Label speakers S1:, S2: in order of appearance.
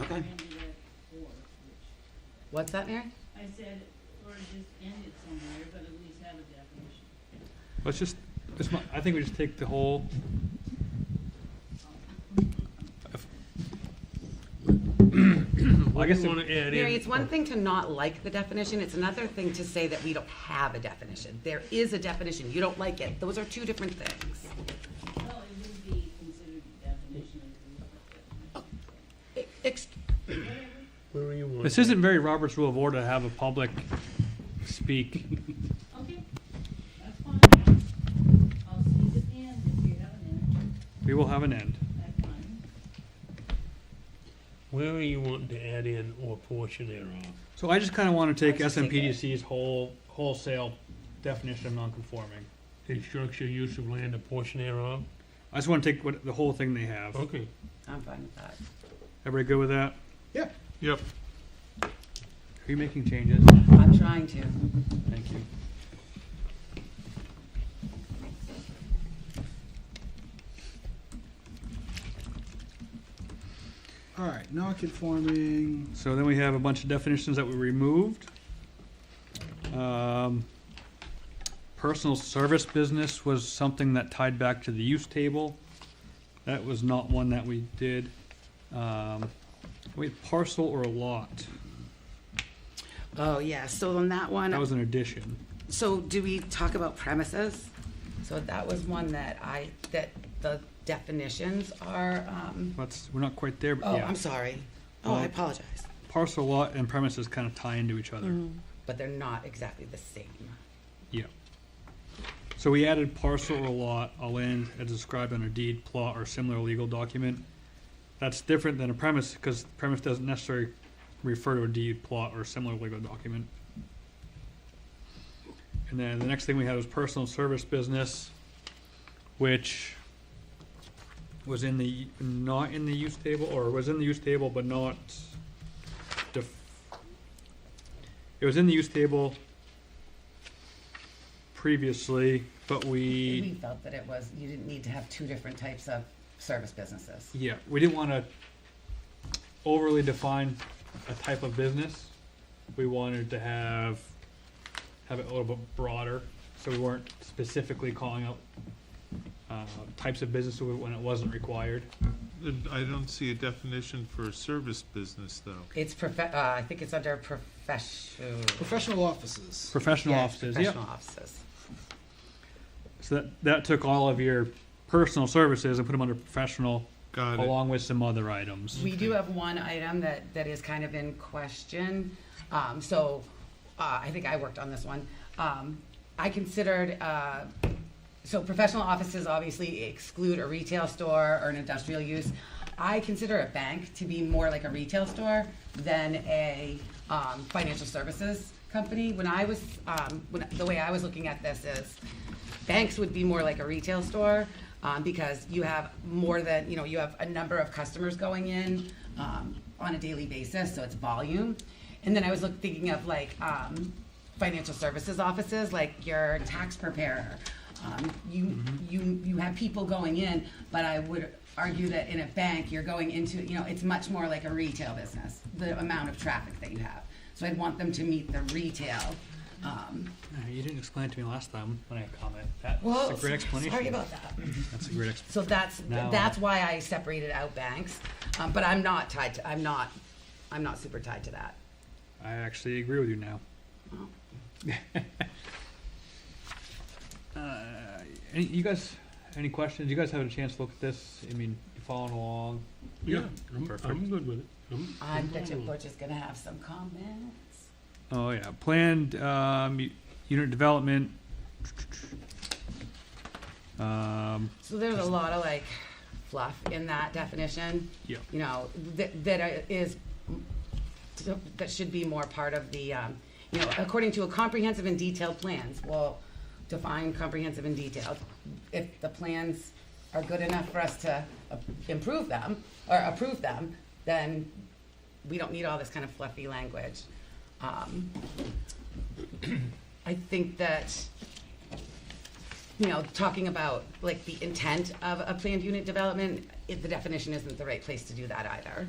S1: Okay.
S2: ended at four, which,
S3: What's that, Mary?
S2: I said, or just end it somewhere, but at least have a definition.
S4: Let's just, this mon- I think we just take the whole. if- I guess,
S5: want
S4: it-
S5: to add
S3: Mary,
S5: in,
S3: it's one thing to not like the definition, it's another thing to say that we don't have a definition. There is a definition, you don't like it. Those are two different things.
S2: Well, it would be considered a definition if you look at
S3: E- ex-
S5: where are you on?
S4: this isn't very Robert's Rule of Order to have a public speak.
S2: it. Okay, that's fine. I'll see you at the end if you have an
S4: We will have an end.
S2: end, that's fine.
S5: Where are you wanting to add in or portion thereof?
S4: So I just kind of want to take
S3: Let's just take it.
S4: SMPDC's whole wholesale definition of non-conforming.
S5: The structure, use of land, or portion thereof?
S4: I just want to take what, the whole thing they have.
S5: Okay.
S3: I'm fine with that.
S4: Everybody good with that?
S5: Yep.
S4: Are you making changes?
S3: I'm trying to.
S4: Thank you.
S1: All right, non-conforming,
S4: So then we have a bunch of definitions that we removed. Um, Personal service business was something that tied back to the use table. That was not one that we did. Um, We had parcel or lot,
S3: Oh, yeah, so on that one,
S4: that was an addition.
S3: So do we talk about premises? So that was one that I, that the definitions are, um,
S4: That's, we're not quite there, but
S3: oh,
S4: yeah.
S3: I'm sorry. Oh, I
S4: Well-
S3: apologize.
S4: Parcel, lot, and premises kind of tie into each other.
S3: But they're not exactly the same.
S4: Yeah. So we added parcel or lot, all land as described on a deed, plot, or similar legal document. That's different than a premise, because premise doesn't necessarily refer to a deed, plot, or similar legal document. And then the next thing we had was personal service business, which was in the, not in the use table, or was in the use table, but not def- it was in the use table previously, but
S3: We felt that it was, you didn't need to have two different types of service businesses.
S4: Yeah, we didn't want to overly define a type of business. We wanted to have have it a little bit broader, so we weren't specifically calling out uh, types of businesses when it wasn't required.
S6: And I don't see a definition for a service business, though.
S3: It's profe, uh, I think it's under professional.
S1: professional offices.
S4: Professional
S3: yeah,
S4: offices,
S3: Professional
S4: yeah.
S3: offices.
S4: So that that took all of your personal services and put them under professional,
S6: Got it.
S4: along with some other items.
S3: We do have one item that, that is kind of in question. Um, so, uh, I think I worked on this one. Um, I considered, uh, so professional offices obviously exclude a retail store or an industrial use. I consider a bank to be more like a retail store than a, um, financial services company. When I was, um, when, the way I was looking at this is, banks would be more like a retail store um, because you have more than you know you have a number of customers going in um, on a daily basis so it's volume and then i was look, thinking of like um, financial services offices like your tax preparer um, you you you have people going in but i would argue that in a bank you're going into you know it's much more like a retail business the amount of traffic that you have so i'd want them to meet the retail um,
S4: Uh, You didn't explain it to me last time when I comment. That's
S3: well,
S4: a great explanation.
S3: sorry about that
S4: That's a great explanation.
S3: So that's,
S4: Now- uh,
S3: that's why I separated out banks, um, but I'm not tied to, I'm not, I'm not super tied to that.
S4: I actually agree with you now. Uh, Any, you guys, any questions? You guys have a chance to look at this? I mean, you following along?
S5: Yeah, I'm, I'm
S4: Perfect.
S5: good with it. I'm-
S3: I
S5: I'm
S3: bet you
S5: fine with it.
S3: Butch is gonna have some comments.
S4: Oh, yeah, planned, um, u- unit development. Um,
S3: So there's a lot of like fluff in that definition.
S4: Yeah.
S3: You know, that, that I- is, that should be more part of the, um, you know, according to a comprehensive and detailed plans, well, define comprehensive and detailed. If the plans are good enough for us to uh, improve them, or approve them, then we don't need all this kind of fluffy language. Um, I think that you know, talking about like the intent of a planned unit development, it- the definition isn't the right place to do that either.